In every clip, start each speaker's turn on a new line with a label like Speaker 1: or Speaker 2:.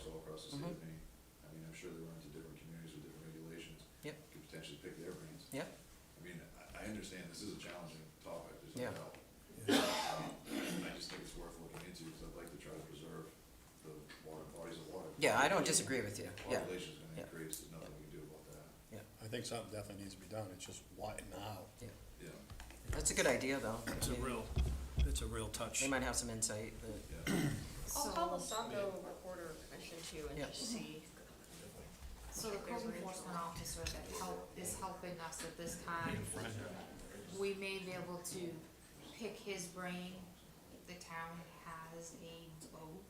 Speaker 1: see
Speaker 2: Mhm.
Speaker 1: if any, I mean, I'm sure they run into different communities with different regulations.
Speaker 2: Yep.
Speaker 1: Could potentially pick their brains.
Speaker 2: Yep.
Speaker 1: I mean, I, I understand this is a challenging topic, there's
Speaker 2: Yeah.
Speaker 1: no doubt. Um, I just think it's worth looking into, because I'd like to try to preserve the water, bodies of water.
Speaker 2: Yeah, I don't disagree with you, yeah,
Speaker 1: Population's
Speaker 2: Yeah.
Speaker 1: gonna increase, there's nothing we can do about that,
Speaker 3: I think something definitely needs to be done, it's just why now?
Speaker 1: yeah,
Speaker 2: that's a good idea, though. I
Speaker 4: It's a
Speaker 2: mean,
Speaker 4: real, it's a real touch.
Speaker 2: They might have some insight, that-
Speaker 1: yeah.
Speaker 5: I'll
Speaker 6: So-
Speaker 5: call the Saco Recorder Commission too and
Speaker 2: Yep.
Speaker 5: just see.
Speaker 6: So the code enforcement officer that help, is helping us at this time, we may be able to pick his brain. The town has a boat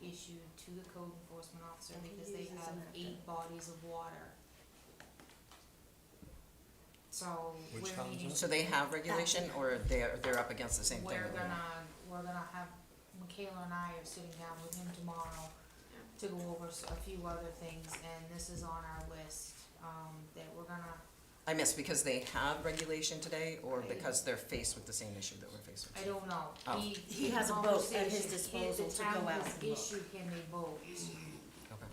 Speaker 6: issued to the code enforcement officer because they have eight bodies of water. So
Speaker 3: Which
Speaker 6: we're
Speaker 3: town's
Speaker 6: needing,
Speaker 3: that?
Speaker 2: so they have regulation, or they're, they're up against the same thing?
Speaker 6: we're
Speaker 2: that we
Speaker 6: gonna,
Speaker 2: have?
Speaker 6: we're gonna have, Michaela and I are sitting down with him tomorrow to go over s- a few other things, and this is on our list, um, that we're gonna
Speaker 2: I miss, because they have regulation today, or because they're faced with the same issue that we're faced
Speaker 6: I
Speaker 2: with?
Speaker 6: don't know.
Speaker 2: Oh.
Speaker 6: He,
Speaker 7: He has a boat at his
Speaker 6: conversation-
Speaker 7: disposal to go out and
Speaker 6: The town
Speaker 7: look.
Speaker 6: has issued him a boat
Speaker 2: Okay,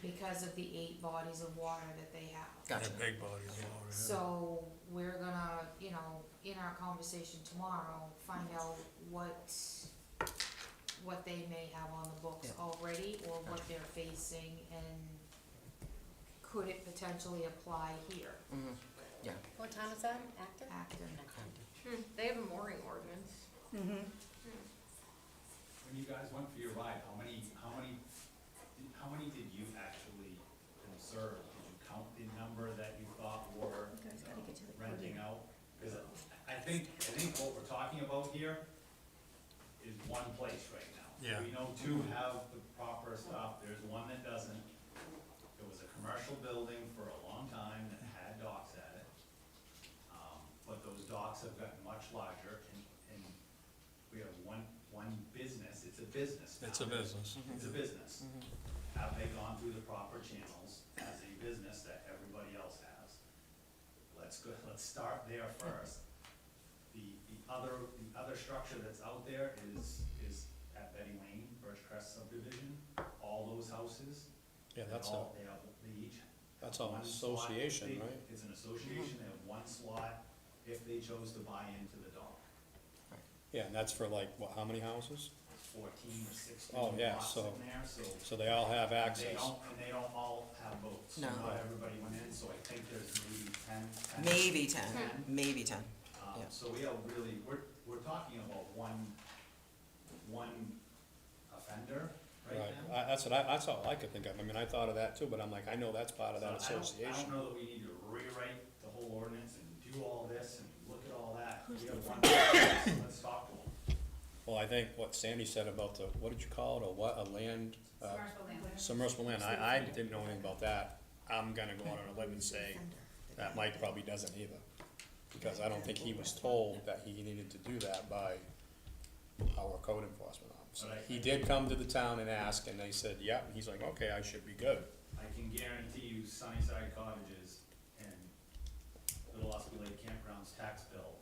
Speaker 6: because of the eight bodies of water that they have.
Speaker 2: gotcha.
Speaker 4: Big body of water, yeah.
Speaker 6: So, we're gonna, you know, in our conversation tomorrow, find out what, what they may have on the books
Speaker 2: Yeah.
Speaker 6: already or what they're facing and could it potentially apply here,
Speaker 2: Mhm.
Speaker 7: What time is that, Actor?
Speaker 6: Acton?
Speaker 5: Hmm, They have a mooring ordinance.
Speaker 8: When you guys went for your ride, how many, how many, how many did you actually observe? Did you count the number that you thought were
Speaker 7: You guys gotta get to the
Speaker 8: renting
Speaker 7: podium.
Speaker 8: out? Because I think, I think what we're talking about here is one place right now.
Speaker 3: Yeah.
Speaker 8: We know two have the proper stuff, there's one that doesn't. It was a commercial building for a long time that had docks at it. Um, But those docks have gotten much larger and, and we have one, one business, it's a business now.
Speaker 4: It's a business.
Speaker 3: Mm-hmm.
Speaker 8: It's a business. Have they gone through the proper channels as a business that everybody else has? Let's go, let's start there first. The, the other, the other structure that's out there is, is at Betty Lane, Birch Crest subdivision, all those houses.
Speaker 3: Yeah,
Speaker 8: they
Speaker 3: that's a,
Speaker 8: all- They have, they each. have
Speaker 3: that's an
Speaker 8: one slot.
Speaker 3: association,
Speaker 8: They-
Speaker 3: right?
Speaker 8: It's an association, they
Speaker 2: Mm-hmm.
Speaker 8: have one slot if they chose to buy into the dock,
Speaker 3: Yeah, and that's for like, what, how many houses?
Speaker 8: fourteen or sixteen
Speaker 3: Oh, yeah,
Speaker 8: lots
Speaker 3: so-
Speaker 8: in there, so.
Speaker 3: So they all have
Speaker 8: They
Speaker 3: access.
Speaker 8: don't, and they don't all have boats.
Speaker 2: No.
Speaker 8: Not everybody went in, so I think there's maybe ten. 10.
Speaker 2: Maybe ten,
Speaker 8: Ten.
Speaker 2: maybe ten,
Speaker 8: Um,
Speaker 2: yeah.
Speaker 8: so we are really, we're, we're talking about one, one offender right
Speaker 3: Right,
Speaker 8: now.
Speaker 3: I, that's what I, that's all I could think of, I mean, I thought of that too, but I'm like, I know that's part of that
Speaker 8: So I don't- I don't
Speaker 3: association.
Speaker 8: know that we need to rewrite the whole ordinance and do all this and look at all that. We have one, let's talk to them.
Speaker 3: Well, I think what Sandy said about the, what did you call it, or what, a land, uh,
Speaker 6: Commercial language.
Speaker 3: submersible land, I, I didn't know anything about that. I'm gonna go out on a limb and say that Mike probably doesn't either, because I don't think he was told that he needed to do that by our code enforcement officer.
Speaker 8: But I-
Speaker 3: He did come to the town and ask, and they said, yep, and he's like, okay, I should be good.
Speaker 8: I can guarantee you Sunnyside Cottages and Little Osprey Lake Campground's tax bill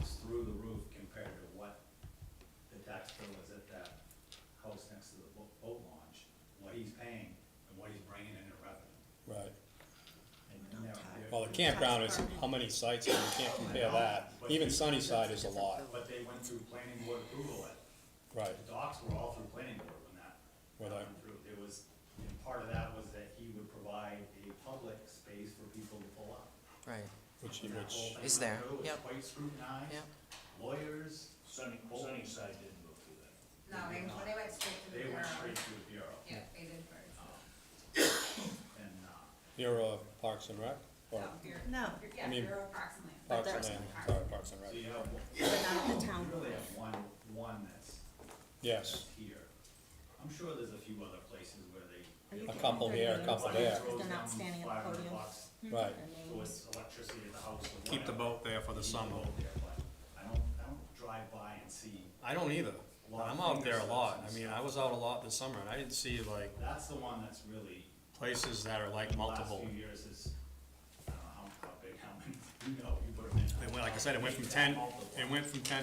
Speaker 8: is through the roof compared to what the tax bill is at that house next to the bo- boat launch, what he's paying and what he's bringing in in revenue.
Speaker 3: Right.
Speaker 8: And you never-
Speaker 3: Well, the campground is, how many sites, and you can't compare that, even Sunnyside is a lot,
Speaker 8: But they went through planning board approval at
Speaker 3: right,
Speaker 8: The docks were all through planning board when that
Speaker 3: Were they?
Speaker 8: went through. There was, and part of that was that he would provide a public space for people to pull up.
Speaker 2: right,
Speaker 3: which,
Speaker 8: When that whole
Speaker 3: which,
Speaker 8: thing
Speaker 2: Is
Speaker 8: went
Speaker 2: there,
Speaker 8: through, it was
Speaker 2: yep.
Speaker 8: Quite scrutinized,
Speaker 2: Yep.
Speaker 8: lawyers,
Speaker 9: Sunny, Sunnyside didn't go through that.
Speaker 6: No, they, they went straight
Speaker 8: they went straight to the bureau.
Speaker 6: Yeah, they did first.
Speaker 8: And, uh,
Speaker 3: you're uh, Parks and Rec, or
Speaker 7: No,
Speaker 3: I mean, uh,
Speaker 6: approximately.
Speaker 3: Parks and
Speaker 7: that's-
Speaker 3: Land, sorry, Parks and
Speaker 8: so
Speaker 3: Rec,
Speaker 8: you have, one-
Speaker 7: but not at the
Speaker 8: you
Speaker 7: town.
Speaker 8: really have one, one that's,
Speaker 3: yes,
Speaker 8: that's here. I'm sure there's a few other places where they.
Speaker 7: Are you
Speaker 3: A couple
Speaker 7: kidding?
Speaker 3: here, a couple
Speaker 8: Somebody
Speaker 3: there.
Speaker 8: throws
Speaker 7: They're not
Speaker 8: down
Speaker 7: standing at the
Speaker 8: 500
Speaker 7: podium.
Speaker 8: bucks
Speaker 3: right.
Speaker 8: Towards electricity at the house or
Speaker 3: Keep the
Speaker 8: whatever.
Speaker 3: boat there for the summer.
Speaker 8: I don't, I don't drive by and see,
Speaker 3: I don't either.
Speaker 8: A lot of
Speaker 3: I'm out there a
Speaker 8: fingers
Speaker 3: lot. I
Speaker 8: and
Speaker 3: mean,
Speaker 8: stuff.
Speaker 3: I was out a lot this summer and I didn't see like
Speaker 8: that's the one that's really,
Speaker 3: places that are like
Speaker 8: the last
Speaker 3: multiple.
Speaker 8: few years is, I don't know how, how big, how many, you know, you put them in.
Speaker 3: It went, like I said, it went from ten,
Speaker 8: Multiple.
Speaker 3: it went from ten